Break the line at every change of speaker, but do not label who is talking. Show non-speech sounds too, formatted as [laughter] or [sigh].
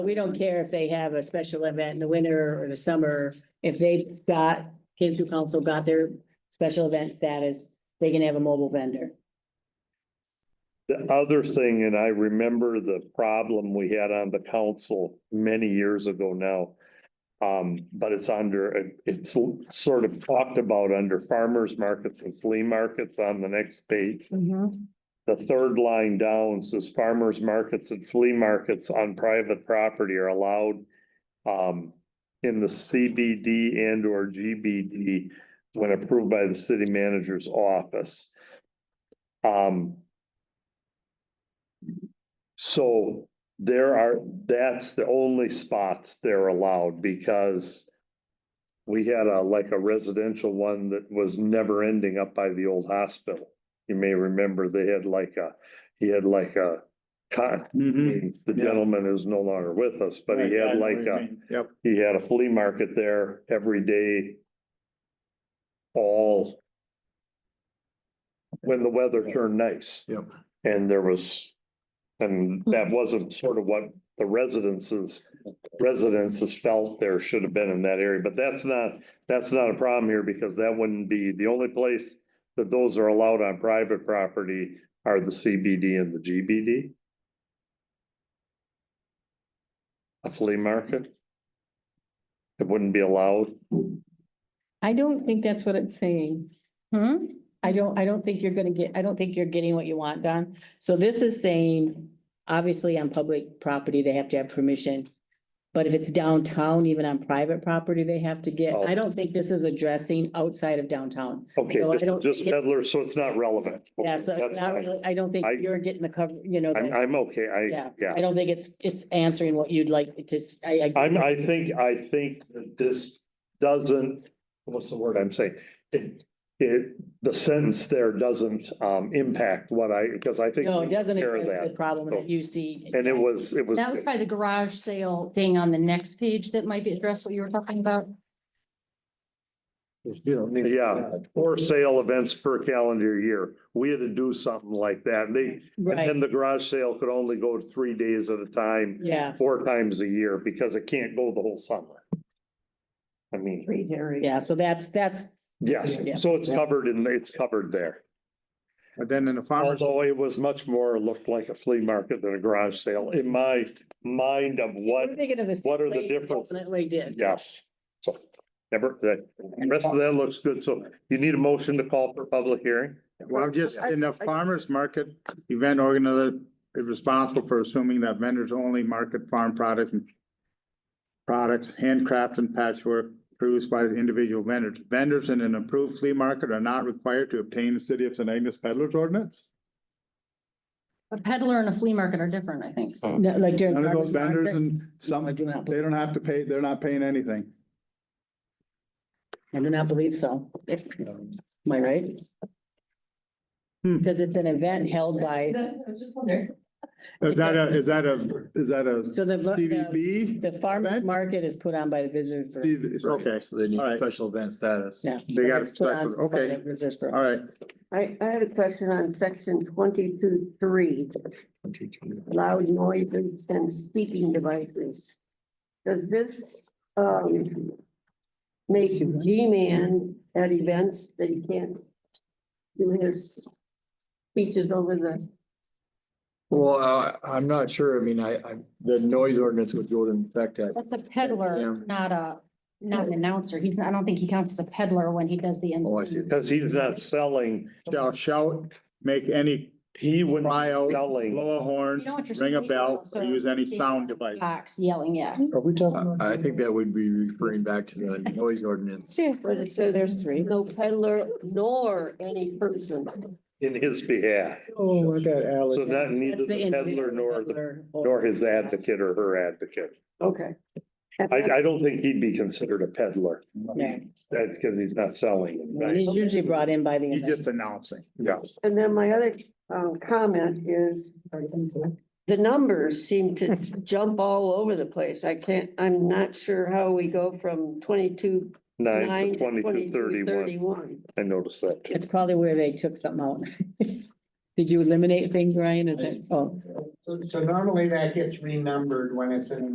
We don't care if they have a special event in the winter or the summer, if they've got, came through council, got their special event status, they can have a mobile vendor.
The other thing, and I remember the problem we had on the council many years ago now. Um, but it's under, it's sort of talked about under farmers markets and flea markets on the next page.
Mm-hmm.
The third line down says farmers markets and flea markets on private property are allowed. um, in the CBD and or GBD when approved by the city manager's office. Um. So there are, that's the only spots they're allowed because. We had a, like a residential one that was never ending up by the old hospital. You may remember they had like a, he had like a. Con, the
yeah.
gentleman is no longer with us, but he had like a
Yep.
he had a flea market there every day. All. When the weather turned nice.
Yep.
And there was, and that wasn't sort of what the residences, residences felt there should have been in that area, but that's not, that's not a problem here because that wouldn't be, the only place that those are allowed on private property are the CBD and the GBD. A flea market? It wouldn't be allowed.
I don't think that's what it's saying. Hmm? I don't, I don't think you're gonna get, I don't think you're getting what you want, Don. So this is saying, obviously on public property, they have to have permission. But if it's downtown, even on private property, they have to get,
Oh.
I don't think this is addressing outside of downtown.
Okay,
So I
just-
don't-
just peddler, so it's not relevant.
Yeah, so
That's
it's not
fine.
really, I don't think
I-
you're getting the cover, you know.
I'm,
the-
I'm okay, I,
Yeah.
yeah.
I don't think it's, it's answering what you'd like it to, s- I, I,
I'm, I think, I think that this doesn't, what's the word I'm saying? It, it, the sentence there doesn't, um, impact what I, because I think.
no,
we
it doesn't
care of
address the
that.
problem
so.
that you see.
And it was, it was,
That was probably the garage sale thing on the next page that might be addressed what you were talking about.
yeah, for sale events per calendar year. We had to do something like that. And they, and
Right,
then the garage sale could only go three days at a time,
yeah,
four times a year, because it can't go the whole summer. I mean.
yeah, so that's, that's,
Yes,
Yeah.
so it's covered and it's covered there.
But then in the farmers,
Although it was much more looked like a flea market than a garage sale in my mind of what,
we're thinking of this.
what are the
place
differences?
Definitely did.
yes. So, never, that, the rest of that looks good. So you need a motion to call for public hearing?
well, I'm just, in the farmers market, event organizer is responsible for assuming that vendors only market farm products and products, handcrafts and patchwork produced by the individual vendors. Vendors in an approved flea market are not required to obtain the city of St. Agnes peddler's ordinance.
A peddler and a flea market are different, I think.
No, like during.
None of
farmer's
those vendors
market,
and some,
I do not
they don't have to pay, they're not paying anything.
I do not believe so. Am I right?
Hmm.
Because it's an event held by,
Is that a, is that a, is that a
so the,
Stevie
the,
B?
the farmer's
event?
market is put on by the visitors. Bureau.
Steve, it's okay,
So they need
All right.
special event status.
Yeah.
They got it
It's put on
special,
by
okay.
the Visitors Bureau.
all right.
I, I have a question on section twenty-two, three, loud noises and speaking devices. Does this, um, make G-Man at events that he can't do his speeches over the,
Well, I, I'm not sure. I mean, I, I, the noise ordinance would go into effect at,
That's a peddler,
Yeah.
not a, not an announcer. He's, not- I don't think he counts as a peddler when he does the.
oh, I see.
Because he's not selling,
shall shout, make any
he wouldn't
cry
be
out,
selling.
blow a horn,
You know what you're
ring a
saying,
bell,
so-
or use any sound device.
Box yelling, yeah.
Are we talking?
I, I think that would be referring back to the noise ordinance.
but it says. There's three. No peddler nor any person.
In his behalf,
Oh, I got Alex.
so not neither
That's
the peddler
individual
nor the,
peddler or-
nor his advocate or her advocate.
Okay.
I, I don't think he'd be considered a peddler,
Yeah.
that's because he's not selling.
And He's usually brought in by the.
You
event.
just announcing.
Yeah.
And then my other, um, comment is the numbers seem to jump all over the place. I can't, I'm not sure how we go from twenty-two,
Nine
nine
to twenty-two,
to twenty-two,
thirty-one.
thirty-one.
I noticed that too.
It's probably where they took something out. [laughs] Did you eliminate things, Ryan? Is that, oh.
So normally that gets renumbered when it's in